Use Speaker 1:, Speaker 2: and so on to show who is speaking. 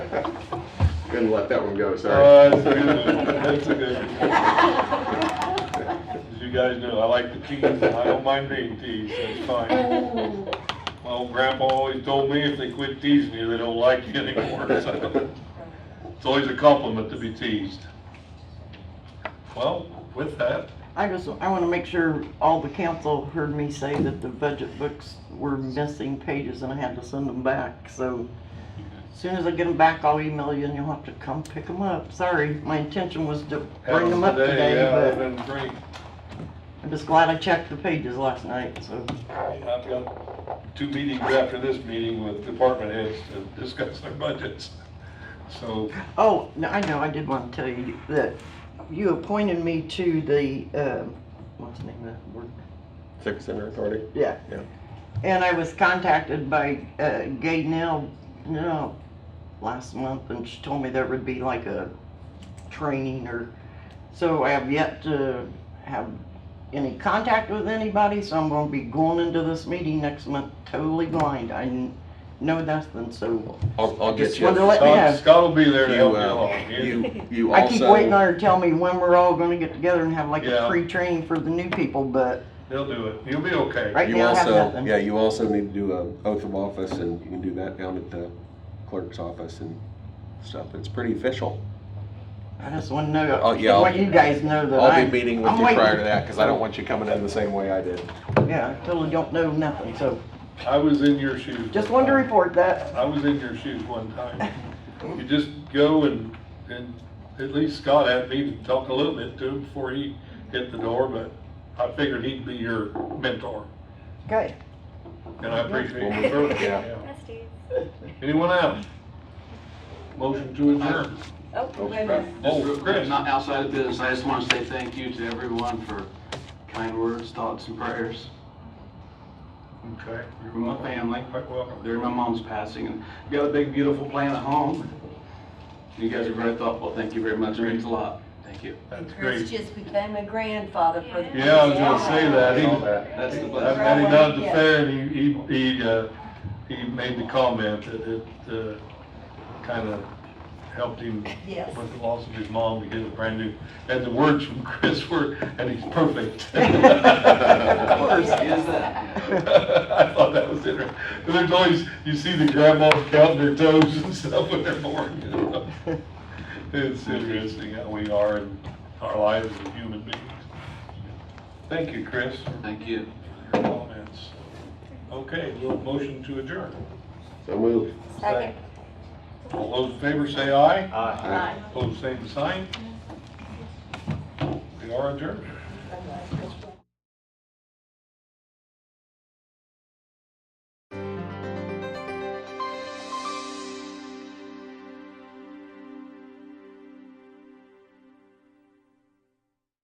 Speaker 1: Couldn't let that one go, sorry.
Speaker 2: Oh, that's okay. That's okay. As you guys know, I like the teas, and I don't mind being teased, so it's fine. My old grandpa always told me if they quit teasing you, they don't like you anymore, so it's always a compliment to be teased. Well, with that,
Speaker 3: I just, I want to make sure all the council heard me say that the budget books were missing pages and I had to send them back, so as soon as I get them back, I'll email you and you'll have to come pick them up. Sorry, my intention was to bring them up
Speaker 2: yeah, I've
Speaker 3: today,
Speaker 2: been great.
Speaker 3: but I'm just glad I checked the pages last night, so.
Speaker 2: I've got two meetings after this meeting with department heads to discuss their budgets, so.
Speaker 3: Oh, no, I know, I did want to tell you that you appointed me to the, um, what's the name of that board?
Speaker 1: Civic Center Authority.
Speaker 3: Yeah.
Speaker 1: Yeah.
Speaker 3: And I was contacted by uh, Gay Nell, no, last month, and she told me there would be like a training or, so I have yet to have any contact with anybody, so I'm gonna be going into this meeting next month totally blind. I kn- know nothing, so
Speaker 1: I'll, I'll get
Speaker 3: Just
Speaker 1: you. Uh,
Speaker 3: wanted to let-
Speaker 2: Scott-
Speaker 3: Yeah.
Speaker 2: Scott will be there to help
Speaker 1: You,
Speaker 2: you
Speaker 1: uh,
Speaker 2: along.
Speaker 1: you, you
Speaker 3: I keep
Speaker 1: also-
Speaker 3: waiting on her to tell me when we're all gonna get together and have like
Speaker 2: Yeah.
Speaker 3: a free training for the new people, but
Speaker 2: They'll do it. You'll be okay.
Speaker 3: Right.
Speaker 1: You
Speaker 3: now I have
Speaker 1: also,
Speaker 3: nothing.
Speaker 1: yeah, you also need to do an oath of office and you can do that down at the clerk's office and stuff. It's pretty official.
Speaker 3: I just wanna
Speaker 1: Oh,
Speaker 3: know,
Speaker 1: yeah, I'll-
Speaker 3: what you guys know that I.
Speaker 1: I'll be meeting with
Speaker 3: I'm
Speaker 1: you prior
Speaker 3: waiting.
Speaker 1: to that because I don't want you coming in the same way I did.
Speaker 3: Yeah, I totally don't know nothing, so.
Speaker 2: I was in your shoes.
Speaker 3: Just wanted to report that.
Speaker 2: I was in your shoes one time. You just go and, and at least Scott had me to talk a little bit to him before he hit the door, but I figured he'd be your mentor.
Speaker 3: Okay.
Speaker 2: And I appreciate your service.
Speaker 1: Yeah.
Speaker 2: Yeah.
Speaker 4: Besties.
Speaker 2: Anyone else? Motion to adjourn.
Speaker 4: Oh, wait a minute.
Speaker 2: Oh,
Speaker 5: Just real
Speaker 2: Chris.
Speaker 5: quick, not outside of business, I just want to say thank you to everyone for kind words, thoughts, and prayers.
Speaker 2: Okay.
Speaker 5: You're my family.
Speaker 2: Quite welcome.
Speaker 5: During my mom's passing, and you got a big, beautiful plan at home. You guys are very thoughtful, thank you very much, it means a lot, thank you.
Speaker 2: That's
Speaker 6: Chris
Speaker 2: great.
Speaker 6: just became a grandfather for the.
Speaker 2: Yeah, I was gonna say that. He,
Speaker 5: That's the
Speaker 2: I've
Speaker 5: blessing.
Speaker 2: met him down at the fair and he, he, he, uh, he made the comment that it, uh, kind of helped him
Speaker 6: Yes.
Speaker 2: with the loss of his mom, he did a brand new, and the words from Chris were, and he's perfect.
Speaker 5: Of course, he is that.
Speaker 2: I thought that was interesting. And There's always, you see the grandmas counting their toes and stuff when they're born. you know? It's interesting how we are in our lives as human beings. Thank you, Chris, for
Speaker 5: Thank you.
Speaker 2: your comments. Okay, we'll motion to adjourn.
Speaker 1: So move.
Speaker 6: Second.
Speaker 2: All those in favor say aye.
Speaker 6: Aye.
Speaker 2: Opposed, same sign. We are adjourned.